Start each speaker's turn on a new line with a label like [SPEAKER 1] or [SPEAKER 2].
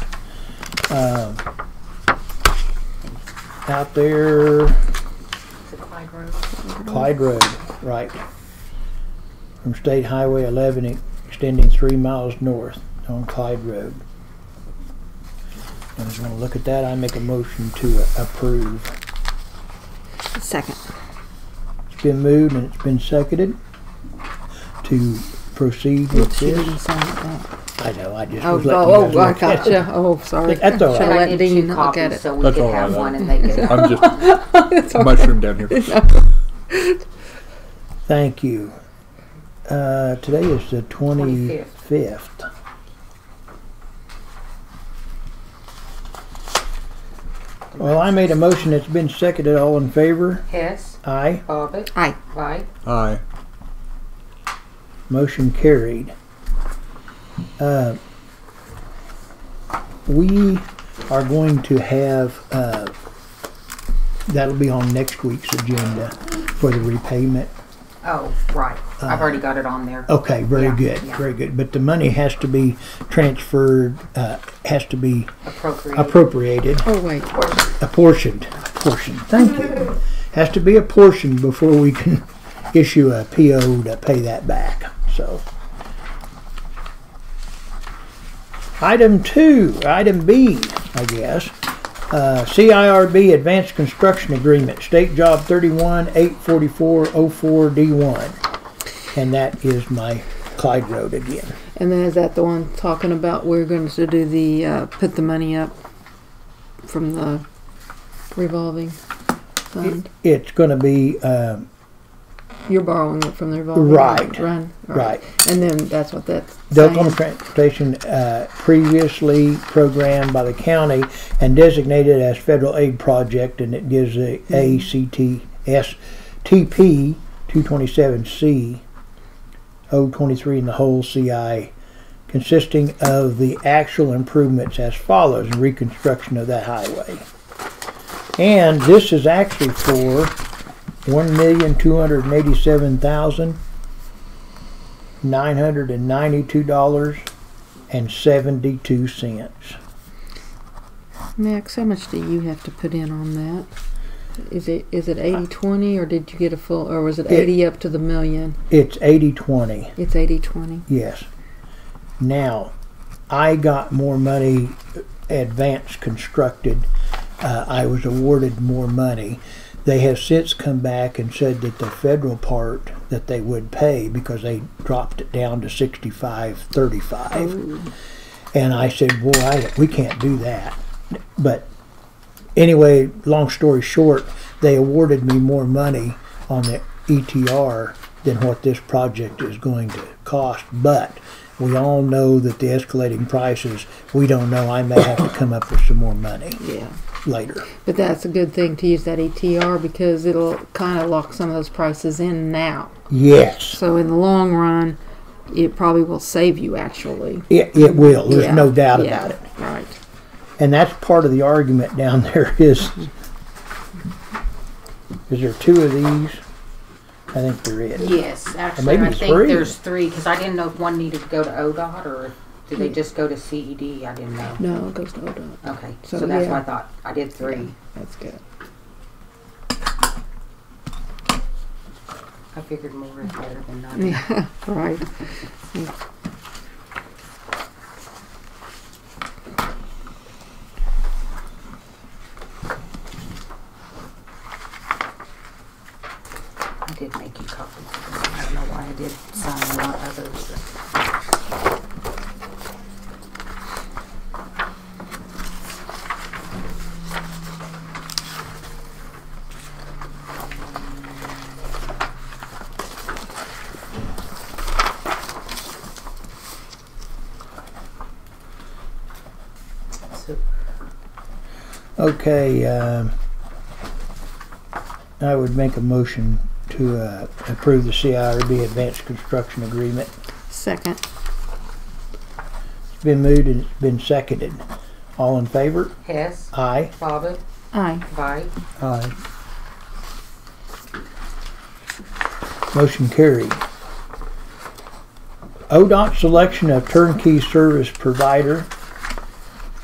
[SPEAKER 1] um, out there,
[SPEAKER 2] Is it Clyde Road?
[SPEAKER 1] Clyde Road, right, from State Highway 11 e- extending three miles north on Clyde Road. I'm going to look at that. I make a motion to approve.
[SPEAKER 3] Second.
[SPEAKER 1] It's been moved and it's been seconded to proceed with
[SPEAKER 3] She didn't
[SPEAKER 1] this.
[SPEAKER 3] say that.
[SPEAKER 1] I know, I just
[SPEAKER 3] Oh,
[SPEAKER 1] was
[SPEAKER 3] go-
[SPEAKER 1] letting you
[SPEAKER 3] oh,
[SPEAKER 1] guys
[SPEAKER 3] I
[SPEAKER 1] look at it.
[SPEAKER 3] gotcha. Oh, sorry.
[SPEAKER 1] That's all
[SPEAKER 3] Should've
[SPEAKER 1] right.
[SPEAKER 2] I did
[SPEAKER 3] let Dean
[SPEAKER 2] two
[SPEAKER 3] look
[SPEAKER 2] copies
[SPEAKER 3] at it.
[SPEAKER 2] so we
[SPEAKER 4] That's
[SPEAKER 2] could
[SPEAKER 4] all
[SPEAKER 2] have
[SPEAKER 4] right,
[SPEAKER 2] one
[SPEAKER 4] I-
[SPEAKER 2] and they could.
[SPEAKER 4] I'm just
[SPEAKER 3] It's all right.
[SPEAKER 4] mushroom down here.
[SPEAKER 1] Thank you. Uh, today is the 25th. Well, I made a motion. It's been seconded. All in favor?
[SPEAKER 2] Hess,
[SPEAKER 1] Aye.
[SPEAKER 2] Bobbit,
[SPEAKER 3] Aye.
[SPEAKER 2] Wright,
[SPEAKER 4] Aye.
[SPEAKER 1] Motion carried. Uh, We are going to have, uh, that'll be on next week's agenda for the repayment.
[SPEAKER 2] oh, right. I've already got it on
[SPEAKER 4] Oh,
[SPEAKER 2] there.
[SPEAKER 1] Okay, very
[SPEAKER 2] Yeah,
[SPEAKER 1] good,
[SPEAKER 2] yeah.
[SPEAKER 1] very good. But the money has to be transferred, uh, has to be
[SPEAKER 2] Appropriate.
[SPEAKER 1] appropriated,
[SPEAKER 3] Oh, wait.
[SPEAKER 1] apportioned, apportioned, thank you. Has to be apportioned before we can issue a PO to pay that back, so. Item two, item B, I guess. Uh, CIRB Advanced Construction Agreement, State Job thirty-one, eight forty-four, oh four, D one. And that is my Clyde Road again.
[SPEAKER 3] And then is that the one talking about we're going to do the, uh, put the money up from the revolving fund?
[SPEAKER 1] It's gonna be, um,
[SPEAKER 3] You're borrowing it from the revolving?
[SPEAKER 1] Right.
[SPEAKER 3] Run.
[SPEAKER 1] Right.
[SPEAKER 3] And then that's what that's
[SPEAKER 1] The Oklahoma
[SPEAKER 3] saying.
[SPEAKER 1] Transportation uh, previously programmed by the county and designated as federal aid project, and it gives the ACTS TP 227C 023 and the whole CI, consisting of the actual improvements as follows: reconstruction of that highway, and this is actually for one million two hundred eighty-seven thousand nine hundred and ninety-two dollars and seventy-two cents.
[SPEAKER 3] Max, how much do you have to put in on that? Is it, is it eighty twenty or did you get a full, or was it
[SPEAKER 1] It-
[SPEAKER 3] eighty up to the million?
[SPEAKER 1] It's eighty twenty,
[SPEAKER 3] It's eighty twenty.
[SPEAKER 1] yes. Now, I got more money advanced constructed. Uh, I was awarded more money. They have since come back and said that the federal part that they would pay because they dropped it down to sixty-five thirty-five. And I said, boy, I, we can't do that. But anyway, long story short, they awarded me more money on the ETR than what this project is going to cost. But we all know that the escalating prices, we don't know. I may have to come up with some more money
[SPEAKER 3] Yeah.
[SPEAKER 1] later.
[SPEAKER 3] But that's a good thing to use that ETR because it'll kind of lock some of those prices in now.
[SPEAKER 1] Yes,
[SPEAKER 3] So in the long run, it probably will save you actually.
[SPEAKER 1] it, it will. There's
[SPEAKER 3] Yeah,
[SPEAKER 1] no doubt
[SPEAKER 3] yeah,
[SPEAKER 1] about it.
[SPEAKER 3] Right.
[SPEAKER 1] And that's part of the argument down there is, is there two of these? I think there is.
[SPEAKER 2] Yes, actually,
[SPEAKER 1] maybe
[SPEAKER 2] I
[SPEAKER 1] it's
[SPEAKER 2] think
[SPEAKER 1] three.
[SPEAKER 2] there's three, because I didn't know if one needed to go to ODOT or did they just go to CED? I didn't know.
[SPEAKER 3] No, it goes to ODOT.
[SPEAKER 2] Okay,
[SPEAKER 3] So,
[SPEAKER 2] so that's
[SPEAKER 3] yeah.
[SPEAKER 2] what I thought. I did three.
[SPEAKER 3] That's good.
[SPEAKER 2] I figured more is better than none.
[SPEAKER 3] Yeah. Right.
[SPEAKER 2] I did make you copies. I don't know why I did sign a lot of others. but- So,
[SPEAKER 1] Okay, um, I would make a motion to uh, approve the CIRB Advanced Construction Agreement.
[SPEAKER 3] Second.
[SPEAKER 1] It's been moved and it's been seconded. All in favor?
[SPEAKER 2] Hess,
[SPEAKER 1] Aye.
[SPEAKER 2] Bobbit,
[SPEAKER 3] Aye.
[SPEAKER 2] Vite,
[SPEAKER 1] Aye. Motion carried. ODOT selection of turnkey service provider